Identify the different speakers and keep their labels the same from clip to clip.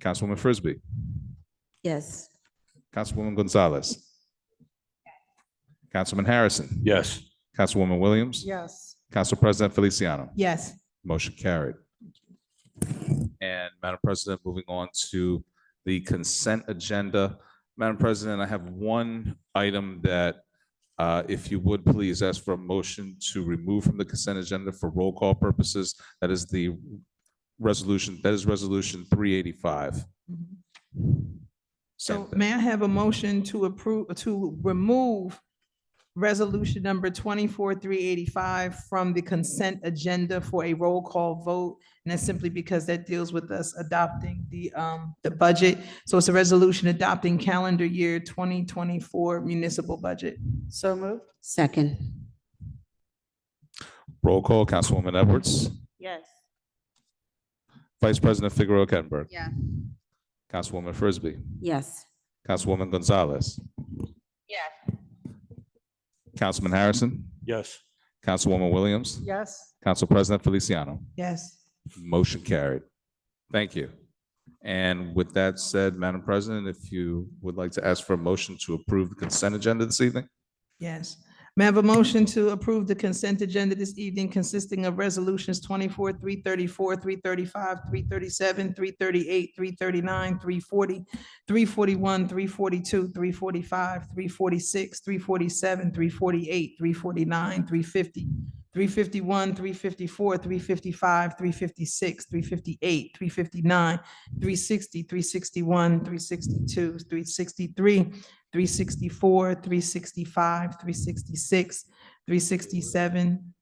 Speaker 1: Councilwoman Frisbee,
Speaker 2: Yes.
Speaker 1: Councilwoman Gonzalez, Councilman Harrison,
Speaker 3: Yes.
Speaker 1: Councilwoman Williams,
Speaker 4: Yes.
Speaker 1: Council President Feliciano.
Speaker 4: Yes.
Speaker 1: Motion carried. And Madam President, moving on to the consent agenda. Madam President, I have one item that, uh, if you would please ask for a motion to remove from the consent agenda for roll call purposes. That is the resolution, that is Resolution 385. Same
Speaker 4: So
Speaker 1: thing.
Speaker 4: may I have a motion to approve, to remove resolution number twenty-four, three eighty-five from the consent agenda for a roll call vote? And that's simply because that deals with us adopting the, um, the budget. So it's a resolution adopting calendar year twenty twenty-four municipal budget.
Speaker 2: So moved. Second.
Speaker 1: Roll call, Councilwoman Edwards.
Speaker 2: Yes.
Speaker 1: Vice President Figueroa Kettner.
Speaker 2: Yeah.
Speaker 1: Councilwoman Frisbee.
Speaker 2: Yes.
Speaker 1: Councilwoman Gonzalez.
Speaker 2: Yes.
Speaker 1: Councilman Harrison.
Speaker 3: Yes.
Speaker 1: Councilwoman Williams.
Speaker 4: Yes.
Speaker 1: Council President Feliciano.
Speaker 4: Yes.
Speaker 1: Motion carried. Thank you. And with that said, Madam President, if you would like to ask for a motion to approve the consent agenda this evening?
Speaker 4: Yes. May I have a motion to approve the consent agenda this evening consisting of resolutions twenty-four, three thirty-four, three thirty-five, three thirty-seven, three thirty-eight, three thirty-nine, three forty, three forty-one, three forty-two, three forty-five, three forty-six, three forty-seven, three forty-eight, three forty-nine, three fifty, three fifty-one, three fifty-four, three fifty-five, three fifty-six, three fifty-eight, three fifty-nine, three sixty, three sixty-one, three sixty-two, three sixty-three, 364, 365, 366, 367,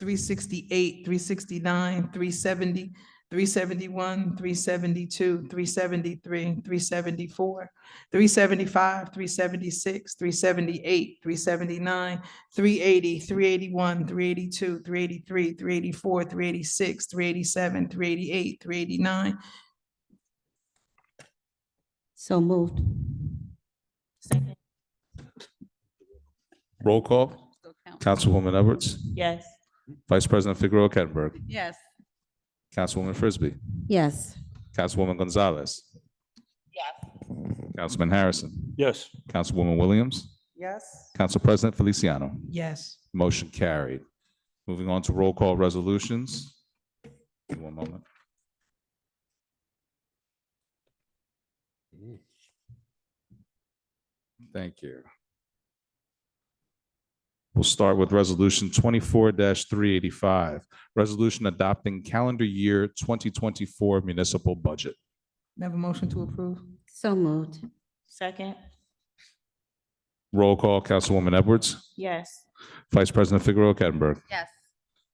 Speaker 4: 368, 369, 370, 371, 372, 373, 374, 375, 376, 378, 379, 380, 381, 382, 383, 384, 386, 387, 388, 389,
Speaker 2: So moved.
Speaker 1: Roll call. Councilwoman Edwards.
Speaker 2: Yes.
Speaker 1: Vice President Figueroa Kettner.
Speaker 2: Yes.
Speaker 1: Councilwoman Frisbee.
Speaker 2: Yes.
Speaker 1: Councilwoman Gonzalez.
Speaker 2: Yes.
Speaker 1: Councilman Harrison.
Speaker 3: Yes.
Speaker 1: Councilwoman Williams.
Speaker 4: Yes.
Speaker 1: Council President Feliciano.
Speaker 4: Yes.
Speaker 1: Motion carried. Moving on to roll call resolutions. Give me One moment. Thank you. We'll start with Resolution twenty-four three eighty-five, resolution adopting calendar year twenty twenty-four municipal budget.
Speaker 4: May I have a motion to approve?
Speaker 2: So moved. Second.
Speaker 1: Roll call, Councilwoman Edwards,
Speaker 2: Yes.
Speaker 1: Vice President Figueroa Kettner,
Speaker 2: Yes.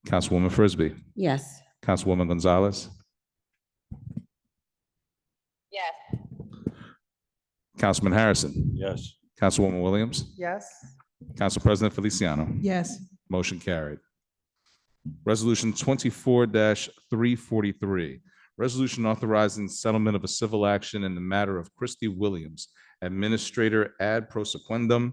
Speaker 1: Councilwoman Frisbee,
Speaker 2: Yes.
Speaker 1: Councilwoman Gonzalez,
Speaker 2: Yes.
Speaker 1: Councilman Harrison.
Speaker 3: Yes.
Speaker 1: Councilwoman Williams.
Speaker 4: Yes.
Speaker 1: Council President Feliciano.
Speaker 4: Yes.
Speaker 1: Motion carried. Resolution twenty-four three forty-three, resolution authorizing settlement of a civil action in the matter of Christy Williams, Administrator ad prosequendum,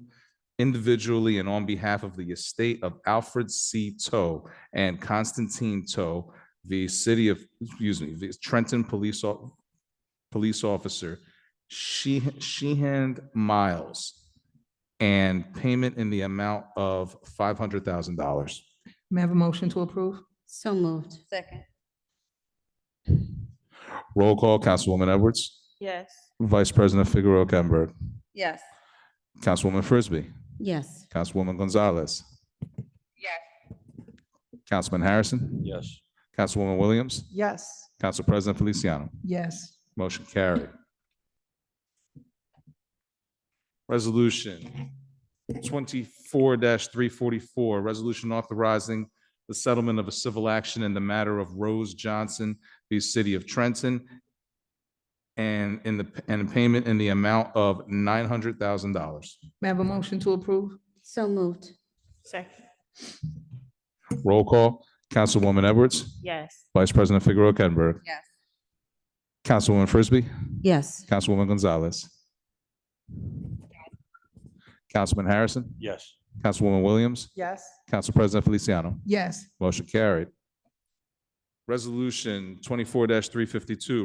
Speaker 1: individually and on behalf of the estate of Alfred C. Toe and Constantine Toe, the city of, excuse me, the Trenton Police, Au- Police Officer, She, Sheehan Miles, and payment in the amount of five hundred thousand dollars.
Speaker 4: May I have a motion to approve?
Speaker 2: So moved. Second.
Speaker 1: Roll call, Councilwoman Edwards,
Speaker 2: Yes.
Speaker 1: Vice President Figueroa Kettner,
Speaker 2: Yes.
Speaker 1: Councilwoman Frisbee,
Speaker 2: Yes.
Speaker 1: Councilwoman Gonzalez,
Speaker 2: Yes.
Speaker 1: Councilman Harrison,
Speaker 3: Yes.
Speaker 1: Councilwoman Williams,
Speaker 4: Yes.
Speaker 1: Council President Feliciano.
Speaker 4: Yes.
Speaker 1: Motion carried. Resolution twenty-four three forty-four, resolution authorizing the settlement of a civil action in the matter of Rose Johnson, the city of Trenton, and in the, and payment in the amount of nine hundred thousand dollars.
Speaker 4: May I have a motion to approve?
Speaker 2: So moved. Second.
Speaker 1: Roll call, Councilwoman Edwards,
Speaker 2: Yes.
Speaker 1: Vice President Figueroa Kettner.
Speaker 2: Yes.
Speaker 1: Councilwoman Frisbee,
Speaker 2: Yes.
Speaker 1: Councilwoman Gonzalez. Councilman Harrison.
Speaker 3: Yes.
Speaker 1: Councilwoman Williams.
Speaker 4: Yes.
Speaker 1: Council President Feliciano.
Speaker 4: Yes.
Speaker 1: Motion carried. Resolution twenty-four three fifty-two,